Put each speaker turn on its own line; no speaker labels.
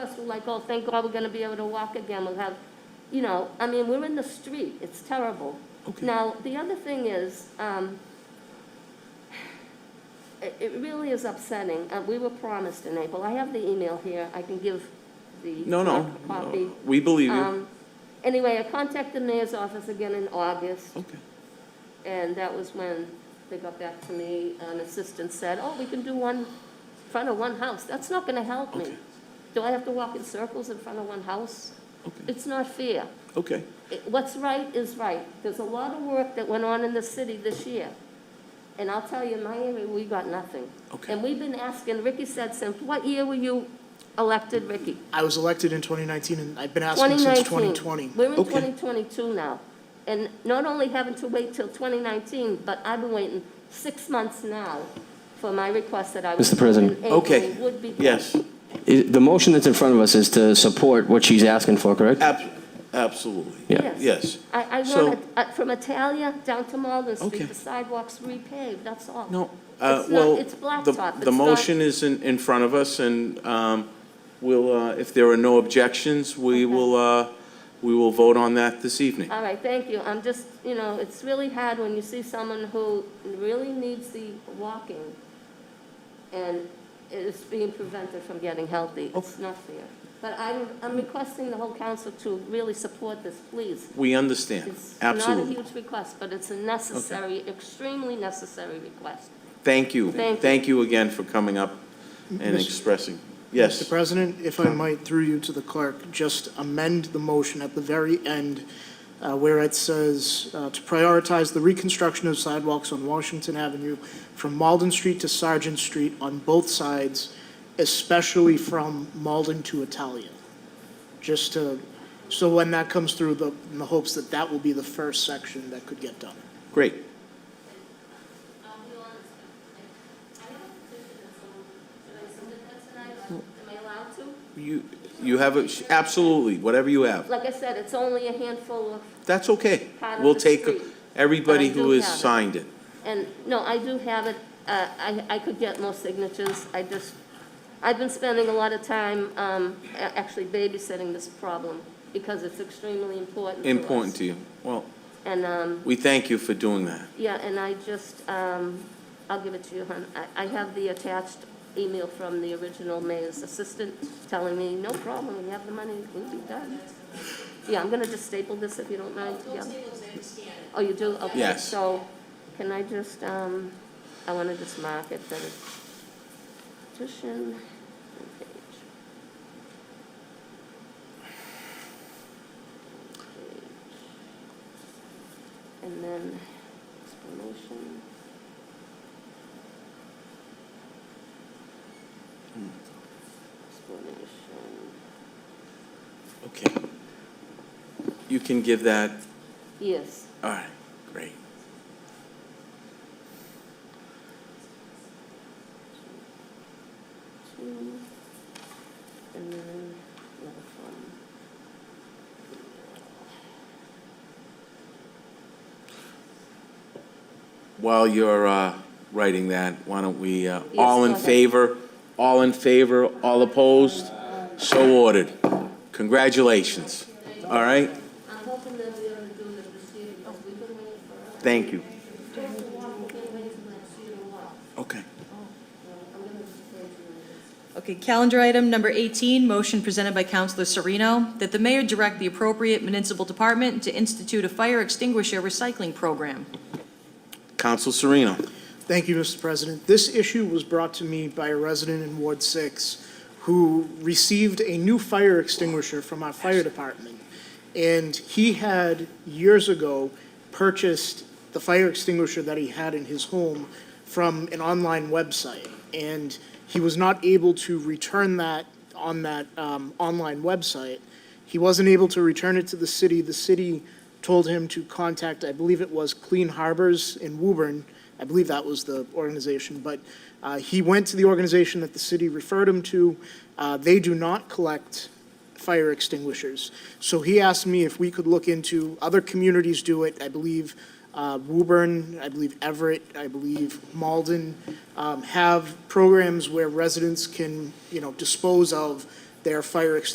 like, oh, thank God we're gonna be able to walk again, we'll have, you know, I mean, we're in the street, it's terrible.
Okay.
Now, the other thing is, um, it, it really is upsetting, uh, we were promised in April, I have the email here, I can give the.
No, no,
a Copy.
no, we believe you.
Um, anyway, I contacted the mayor's office again in August,
Okay,
and that was when they got back to me, an assistant said, oh, we can do one, in front of one house, that's not gonna help me.
Okay.
Do I have to walk in circles in front of one house?
okay,
It's not fair.
okay,
It- What's right is right. There's a lot of work that went on in the city this year. And I'll tell you, in my area, we got nothing.
Okay.
And we've been asking, Ricky said, since what year were you elected, Ricky?
I was elected in 2019, and I've been asking since
2019.
2020.
We're in
Okay.
2022 now. And not only having to wait till 2019, but I've been waiting six months now for my request that I was.
Mr. President.
in April
okay.
Would be.
Yes,
I- The motion that's in front of us is to support what she's asking for, correct?
ab- absolutely,
Yeah.
yes.
I, I
So-
want, it, uh, from Italia down to Malden
Okay.
Street, the sidewalks repaved, that's all.
No, uh,
It's
well,
not, it's
the,
blacktop.
the
It's not-
motion is in, in front of us, and um, we'll, uh, if there are no objections, we will, uh, we will vote on that this evening.
All right, thank you. I'm just, you know, it's really hard when you see someone who really needs the walking and is being prevented from getting healthy. It's not fair. But I'm, I'm requesting the whole council to really support this, please.
We understand,
It's not a
absolutely.
huge request, but it's a necessary, extremely necessary request.
Thank you.
Thank you.
Thank you again for coming up and
Mr.
expressing. Yes.
Mr. President, if I might, through you to the clerk, just amend the motion at the very end uh, where it says uh, to prioritize the reconstruction of sidewalks on Washington Avenue from Malden Street to Sergeant Street on both sides, especially from Malden to Italia. Just to, so when that comes through, the, in the hopes that that will be the first section that could get done.
Great.
Mm.
You, you have, a absolutely, whatever you have.
Like I said, it's only a handful of
That's okay.
Part of
We'll
the
take
street.
everybody
I do
who has
have it.
signed it.
And, no, I do have it, Uh, I, I could get more signatures, I just, I've been spending a lot of time um, a- actually babysitting this problem, because it's extremely important to us.
Important to you. Well,
And, um,
we thank you for doing that.
yeah, and I just, um, I'll give it to you, hon, I, I have the attached email from the original mayor's assistant telling me, no problem, we have the money, we'll be done. Yeah, I'm gonna just staple this if you don't mind, yeah. Oh, you do, okay.
Yes.
So, can I just, um, I wanna just mark it that it's petition, front page. Page. And then explanation. Explanation,
Okay. You can give that,
yes.
all right, great.
two, and then another one.
While you're uh, writing that, why don't we, uh,
Yes,
all in
go ahead.
favor? All in favor, all opposed? So ordered. Congratulations. All right?
I'm hoping that we are gonna do it this year, because we've been waiting for.
Thank you.
We've been waiting for that year to walk.
Okay.
I'm gonna just wait for it.
Okay, calendar item number 18, motion presented by Councilor Serino, that the mayor direct the appropriate municipal department to institute a fire extinguisher recycling program.
Counsel Serena.
Thank you, Mr. President. This issue was brought to me by a resident in Ward 6 who received a new fire extinguisher from our fire department. And he had, years ago, purchased the fire extinguisher that he had in his home from an online website. And he was not able to return that on that um, online website. He wasn't able to return it to the city. The city told him to contact, I believe it was Clean Harbors in Woburn. I believe that was the organization, but uh, he went to the organization that the city referred him to. Uh, They do not collect fire extinguishers. So he asked me if we could look into, other communities do it, I believe uh, Woburn, I believe Everett, I believe Malden, um, have programs where residents can, you know, dispose of their fire extinguishers